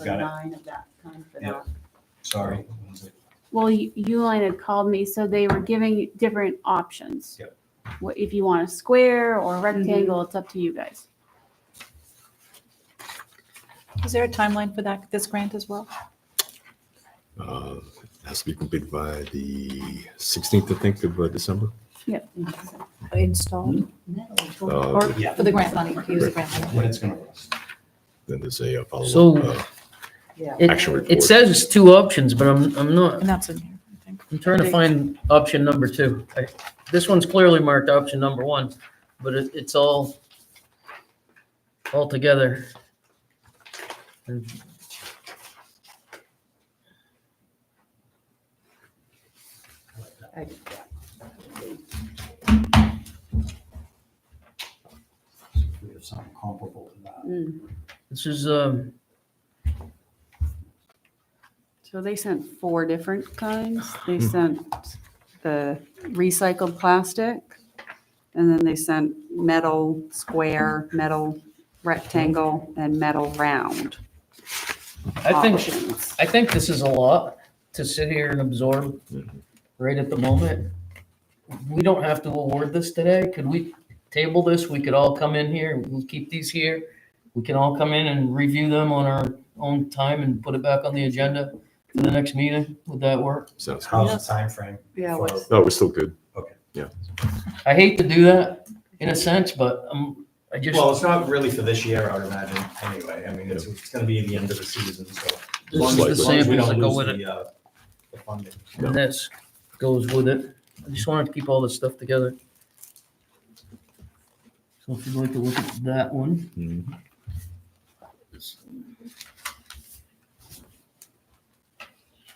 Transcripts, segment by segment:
or Got it. nine of that kind for Yep. that. Sorry. Well, U- Uline had called me, so they were giving different options. Yep. What, if you want a square or a rectangle, it's up to you guys. Is there a timeline for that, this grant as well? Uh, Has to be completed by the 16th, I think, of uh, December. Installed Metal. Uh, or Yeah. for the grant money, use the grant money. When it's gonna rust. Then there's a uh, So- follow-up. uh, Yeah. It, Action report. it says it's two options, but I'm, I'm not, And that's in here, I think. I'm trying to find option number two. I- This one's clearly marked option number one, but it, it's all, all together. And I did that. If we have something comparable to that. Mm. This is, um, So they sent four different kinds. They sent the recycled plastic, and then they sent metal square, metal rectangle, and metal round Ah, I think, options. I think this is a lot to sit here and absorb Mhm. right at the moment. We don't have to award this today. Could we table this? We could all come in here. We'll keep these here. We can all come in and review them on our own time and put it back on the agenda for the next meeting. Would that work? Sounds, How's the timeframe? Yeah, for- what's- no, we're still good. I hate to do that in a sense, but um, I just, Well, it's not really for this year, I would imagine, anyway. I mean, it's, it's gonna be the end of the season, so. as long this as- is the as long as we samples don't that go lose with it the, uh, The funding. and this goes with it. I just wanted to keep all this stuff together. So if you'd like to look at that one. Mhm.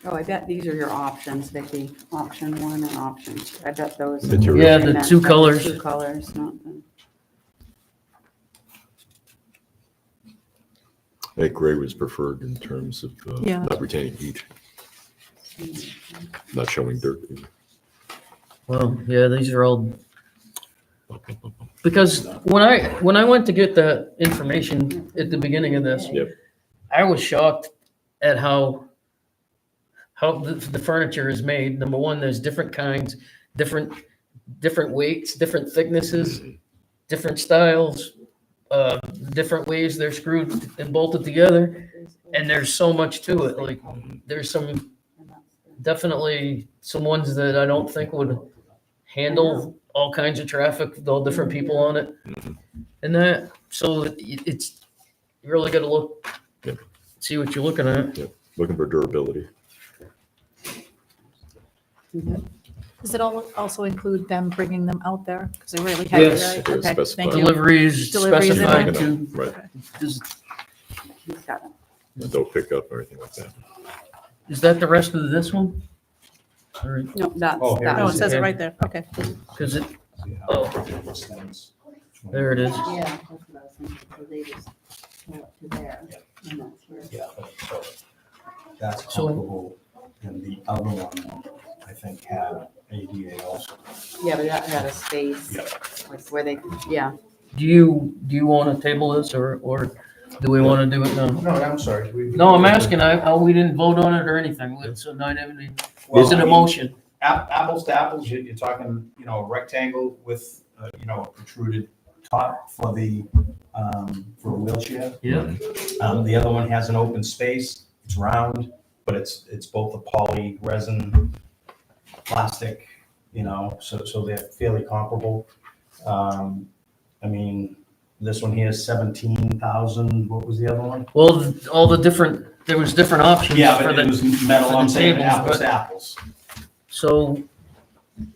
Oh, I bet these are your options, Vicky. Option one and option two. I bet those. That you're- Yeah, the two colors. Two colors, not the. I think gray was preferred in terms of uh, Yeah. not retaining heat, not showing dirt. Well, yeah, these are all. Because when I, when I went to get the information at the beginning of this. Yep. I was shocked at how, how the, the furniture is made. Number one, there's different kinds, different, different weights, different thicknesses, different styles, uh, different ways they're screwed and bolted together. And there's so much to it, like, there's some, definitely some ones that I don't think would handle all kinds of traffic, with all different people on it. And that, so it- it's, you really gotta look, Yep. see what you're looking at. Looking for durability. Does it all also include them bringing them out there? Because they really have. Yes. right? It is Okay, specified. thank you. Deliveries Deliveries and specified all. to, Right. is, He's got it. Don't pick up or anything like that. is that the rest of this one? Or, No, Oh, that's, here No, it that's, says it right there. Okay. cause it, See how oh, it extends. there it is. yeah, that's what I was thinking. So they just pull it to there. and that's where- Yeah, so that's So- comparable, and the other one, I think, had ADA also. Yeah, but that had a space, like where they, yeah. Do you, do you wanna table this or, or do we wanna do it now? No, I'm sorry. we- No, I'm asking, I, I, we didn't vote on it or anything, so not even, Well, is it I a mean, motion? app- Apples to apples, you're, you're talking, you know, a rectangle with, uh, you know, a protruded top for the, um, for a wheelchair. Yeah. Um, the other one has an open space, it's round, but it's, it's both a poly resin, plastic, you know, so, so they're fairly comparable. Um, I mean, this one here is seventeen thousand, what was the other one? Well, all the different, there was different options Yeah, for but it the, was metal, for I'm the saying tables, apples but- to apples. so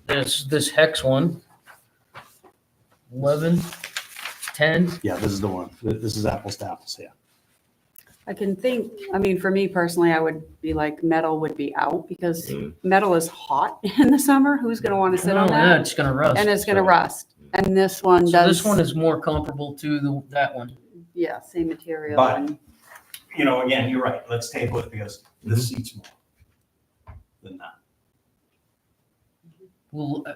there's this hex one. Eleven, ten, Yeah, this is the one, Th- this is apples to apples, yeah. I can think, I mean, for me personally, I would be like, metal would be out because Mm. metal is hot in the summer. Who's gonna wanna sit oh, on yeah, that? it's gonna rust. And it's gonna sure. rust. And this one So does, this one is more comparable to the, that one. yeah, same material. But- and- You know, again, you're right, let's table it because this seats more than that, Well, uh,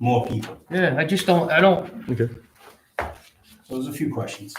more people. yeah, I just don't, I don't, So there's a few questions.